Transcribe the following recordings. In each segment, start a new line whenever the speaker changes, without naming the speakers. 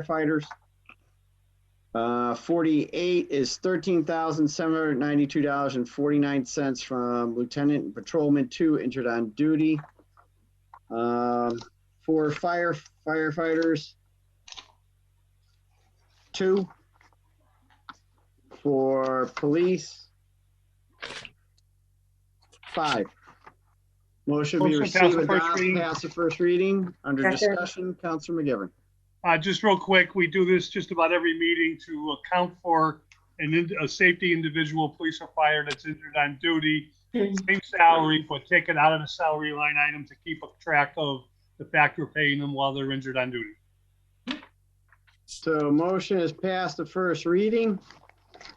firefighters. Uh, forty-eight is thirteen thousand seven hundred ninety-two dollars and forty-nine cents from Lieutenant and Patrolman Two entered on duty. Um, for fire firefighters. Two. For police. Five. Motion be
Motion to pass
received,
the first
adopt,
reading.
pass the first reading. Under
Second.
discussion, Counselor McGivern.
Uh, just real quick, we do this just about every meeting to account for an, ind- a safety individual, police or fire that's injured on duty. Same salary, but take it out of the salary line item to keep a track of the fact we're paying them while they're injured on duty.
So motion is passed the first reading.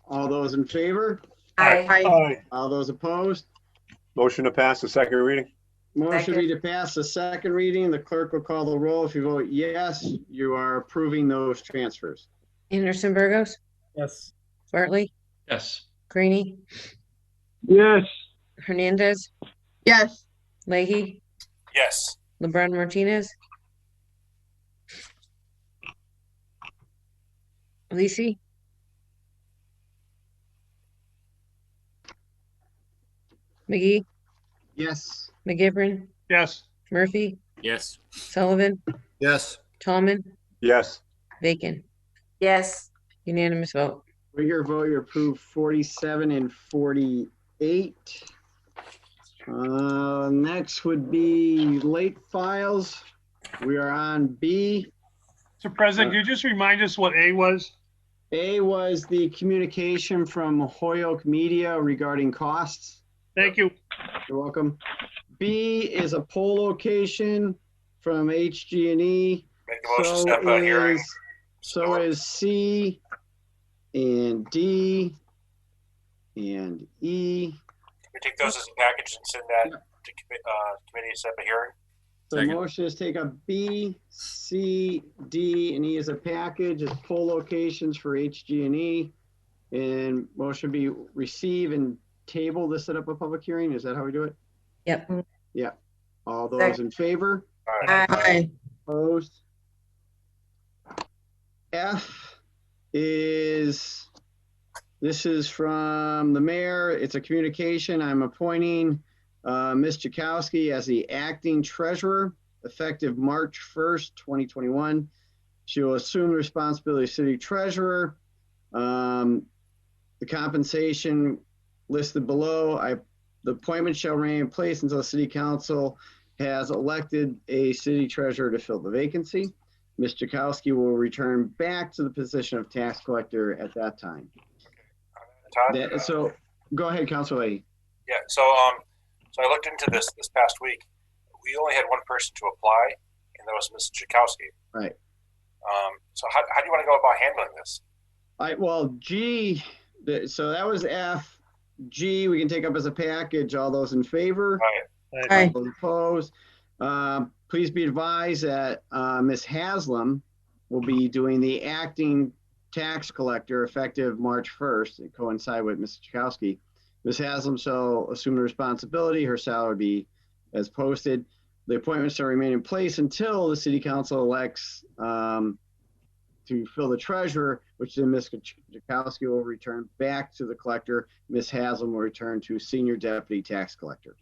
All those in favor?
Aye.
All those opposed?
Motion to pass the second reading?
Motion be to pass the second reading. The clerk will call the roll. If you vote yes, you are approving those transfers.
Anderson Burgos,
Yes.
Bartley,
yes,
Greenie,
Yes.
Hernandez,
yes,
Leahy,
yes,
LeBron Martinez. Lisi, McGee,
Yes.
McGivern,
Yes,
Murphy,
yes,
Sullivan,
yes,
Tallman,
Yes.
Bacon.
yes,
Unanimous vote.
With your vote, you approve 47 and 48. Uh, Next would be late files. We are on B.
so President, can you just remind us what A was?
A was the communication from Hoyok Media regarding costs.
Thank you.
You're welcome. B is a poll location from HG&E.
make the
E.
motion,
So
step out hearing.
is- So is C and D and E.
We take those as a package and send that to commi- uh, committee to set up a hearing?
The
Second.
motion is take up B, C, D, and E as a package, as poll locations for HG&E. E. And motion be receive and table to set up a public hearing. Is that how we do it?
Yep.
Yeah. All those in favor?
All right.
Uh,
aye,
aye,
Opposed? F is, this is from the mayor. It's a communication. I'm appointing uh, Ms. Jakowski as the acting treasurer effective March 1st, 2021. She will assume the responsibility of city treasurer. Um, The compensation listed below, I, the appointment shall remain in place until the city council has elected a city treasurer to fill the vacancy. Ms. Jakowski will return back to the position of tax collector at that time.
Todd?
That- so, go ahead, Council Leahy.
Yeah, so, um, so I looked into this this past week. We only had one person to apply, and that was Ms. Chakowski.
Right.
Um, so how, how do you want to go about handling this?
I, well, G, th- so that was F. G, we can take up as a package. All those in favor?
All right.
Aye.
All opposed? Um, Please be advised that uh, Ms. Haslam will be doing the acting tax collector effective March 1st, and coincide with Ms. Chakowski. Ms. Haslam shall assume the responsibility, her salary be as posted. The appointments shall remain in place until the city council elects um, to fill the treasurer, which then Ms. Chakowski will return back to the collector. Ms. Haslam will return to senior deputy tax collector.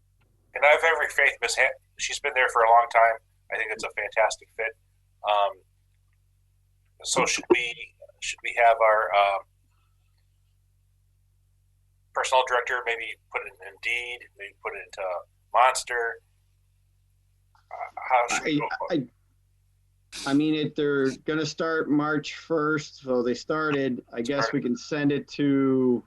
and I have every faith. Miss Han- she's been there for a long time. I think it's a fantastic fit. Um, so should we should we have our um, personnel director maybe put it in Indeed, maybe put it into Monster? Uh, how should we
I,
go? about it?
I, I mean, it, they're gonna start March first, so they started, I guess we can send it to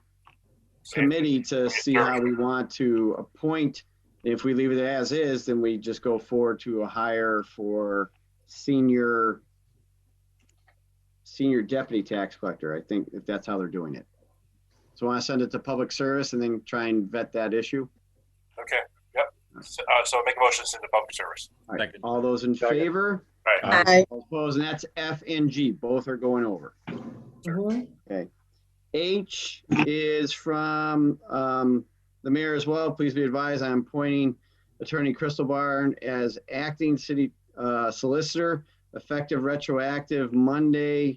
committee to see how we want to appoint. If we leave it as is, then we just go forward to a hire for senior, senior deputy tax collector, I think, if that's how they're doing it. So I wanna send it to public service and then try and vet that issue.
Okay. Yep. So, uh, so make a motion to send to public service.
All right,
Second.
all those in
Second.
favor?
All right.
aye,
All Opposed, and that's F and G, both are going over.
Mhm.
H is from um, the mayor as well. Please be advised, I'm appointing Attorney Crystal Barn as acting city uh, solicitor effective retroactive Monday,